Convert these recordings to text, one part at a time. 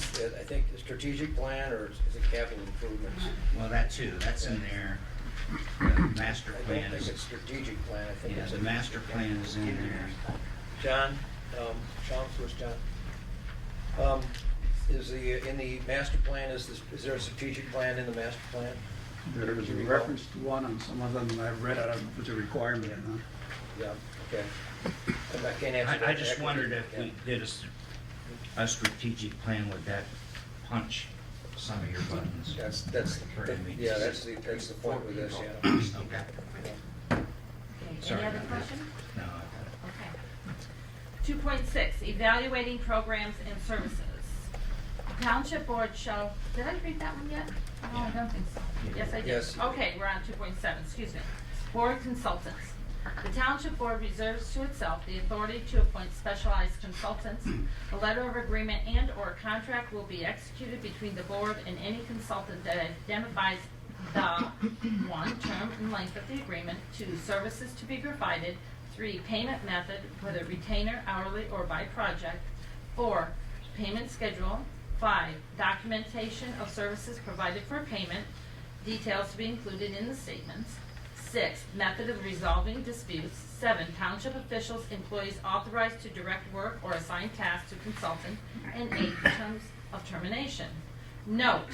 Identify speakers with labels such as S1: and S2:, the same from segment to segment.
S1: said, I think the strategic plan or is it capital improvements?
S2: Well, that too, that's in there. The master
S1: I don't
S2: plan
S1: think
S2: is,
S1: it's strategic plan, I think
S2: yeah,
S1: it's.
S2: the
S1: a-
S2: master plan is in there.
S1: John, um, Sean first, John. Um, Is the, in the master plan, is this, is there a strategic plan in the master plan?
S3: There was a reference to one on some of them, I've read, I don't know if it's a requirement or not.
S1: Yeah, okay. I'm not- can't answer that.
S2: I, I just
S1: directly.
S2: wondered if we did a, s- a strategic plan, would that punch some of your buttons?
S1: That's, that's,
S2: Or I mean,
S1: yeah, that's the, that's the point with this, yeah.
S2: Okay,
S4: Okay,
S2: Sorry
S4: Any other
S2: about that.
S4: questions?
S2: no, I
S4: Okay. Two point six, evaluating programs and services. Township board shall, did I read that one yet? No, I don't think so. Yes, I did.
S1: Yes.
S4: Okay, we're on two point seven, excuse me. Board consultants. The township board reserves to itself the authority to appoint specialized consultants. A letter of agreement and/or contract will be executed between the board and any consultant that identifies the, one, term and length of the agreement, two, services to be provided, three, payment method, whether retainer, hourly, or by project, four, payment schedule, five, documentation of services provided for payment, details to be included in the statements, Six, method of resolving disputes. Seven, township officials, employees authorized to direct work or assign tasks to consultant. And eight, terms of termination. Note,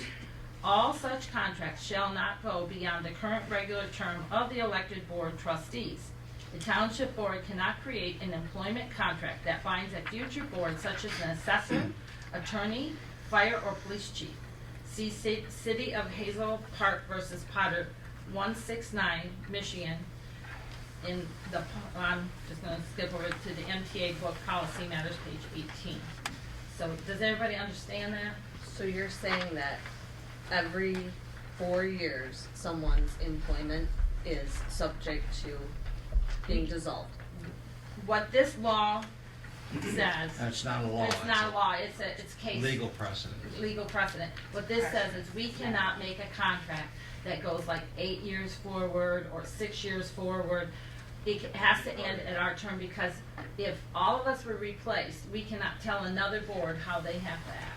S4: all such contracts shall not go beyond the current regular term of the elected board trustees. The township board cannot create an employment contract that binds a future board such as an assessor, attorney, fire, or police chief. See Ci- City of Hazel Park versus Potter, 169 Michigan, in the, po- I'm just going to skip over to the MTA book policy matters, page 18. So does everybody understand that?
S5: So you're saying that every four years, someone's employment is subject to being dissolved?
S4: What this law says,
S2: got it. It's not a law.
S4: it's not a law, it's a, it's
S2: a
S4: case.
S2: Legal precedent.
S4: legal precedent. What this says is we cannot make a contract that goes like eight years forward or six years forward. It ca- has to end at our term because if all of us were replaced, we cannot tell another board how they have to act.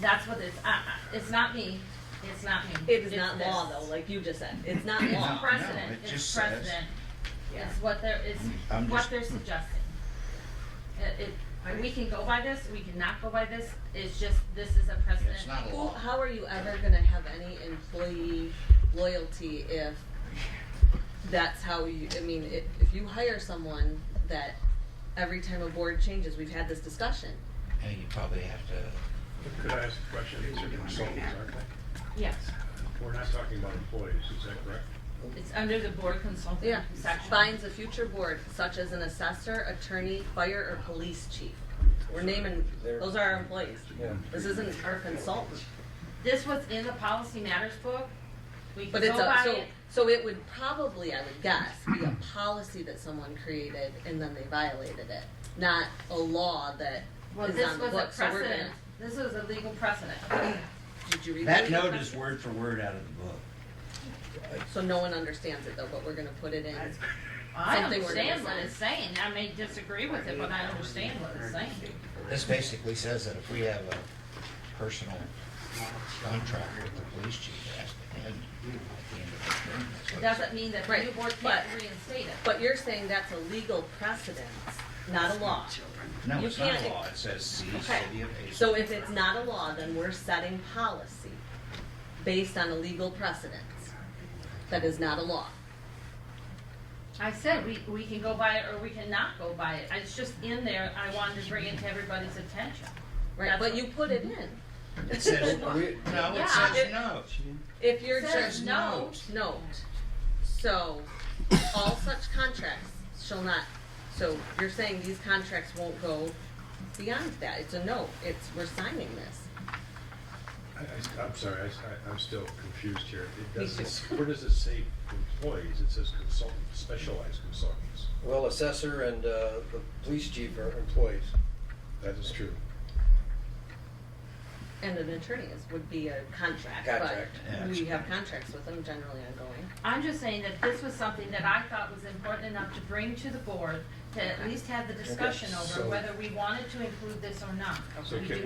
S4: That's what it's, uh, uh, it's not me, it's not me.
S5: It is not
S4: It's
S5: law
S4: this.
S5: though, like you just said, it's not
S2: No,
S5: law.
S4: It's
S2: no,
S4: precedent,
S2: it just
S4: it's
S2: says-
S4: precedent.
S5: Yeah.
S4: It's what they're, it's
S2: I'm
S4: what
S2: just-
S4: they're suggesting. Uh, It, it, we can go by this, we cannot go by this, it's just, this is a precedent.
S2: It's not a
S5: Who,
S2: law.
S5: how are you ever gonna have any employee loyalty if that's how you, I mean, if, if you hire someone that every time a board changes, we've had this discussion.
S2: And you probably have to,
S6: Could I ask a question? These are consultants, aren't they?
S4: Yes,
S6: We're not talking about employees, is that correct?
S4: it's under the board consulting section.
S5: Finds a future board such as an assessor, attorney, fire, or police chief. We're naming, those are our employees.
S1: Yeah.
S5: This isn't our consultant.
S4: This was in the policy matters book, we can
S5: But it's
S4: go
S5: a,
S4: by
S5: so,
S4: it,
S5: so it would probably, I would guess, be a policy that someone created and then they violated it, not a law that
S4: well,
S5: is
S4: this
S5: on the
S4: was a
S5: book, so we're
S4: precedent,
S5: gonna,
S4: this was a legal precedent.
S5: did you read
S2: that
S5: that?
S2: note is word for word out of the book.
S5: So no one understands it though, but we're gonna put it in.
S4: I
S5: Something we're gonna
S4: understand what
S5: sign.
S4: it's saying, I may disagree with it, but I understand what it's saying.
S2: This basically says that if we have a personal contract with the police chief, it has to end at the end of the term. That's
S4: It
S2: what it
S4: doesn't mean that the new
S5: Right,
S4: board can't
S5: but-
S4: reinstate it.
S5: But you're saying that's a legal precedent, not a law.
S2: says. No,
S5: you
S2: it's not a
S5: can't-
S2: law. It says see
S5: Okay.
S2: city of Hazel.
S5: So if it's not a law, then we're setting policy based on a legal precedent that is not a law.
S4: I said, we, we can go by it or we cannot go by it. It's just in there, I wanted to bring it to everybody's attention.
S5: Right, but
S4: That's-
S5: you put it in.
S2: It says,
S1: Are we-
S2: no, it
S4: Yeah.
S2: says no.
S5: If you're
S4: It says
S5: just
S4: no.
S5: note, so all such contracts shall not, so you're saying these contracts won't go beyond that, it's a note, it's, we're signing this.
S6: I, I, I'm sorry, I, I- I'm still confused here. It
S5: Me
S6: doesn't,
S5: too.
S6: where does it say employees? It says consultant, specialized consultants.
S1: Well, assessor and uh, the police chief are employees.
S6: That is true.
S5: And an attorney is, would be a contract,
S1: Contract,
S2: yeah.
S5: but we have contracts with them generally ongoing.
S4: I'm just saying that this was something that I thought was important enough to bring to the board to at least have the discussion over
S6: so-
S4: whether we wanted to include this or not.
S6: So
S4: We
S6: can-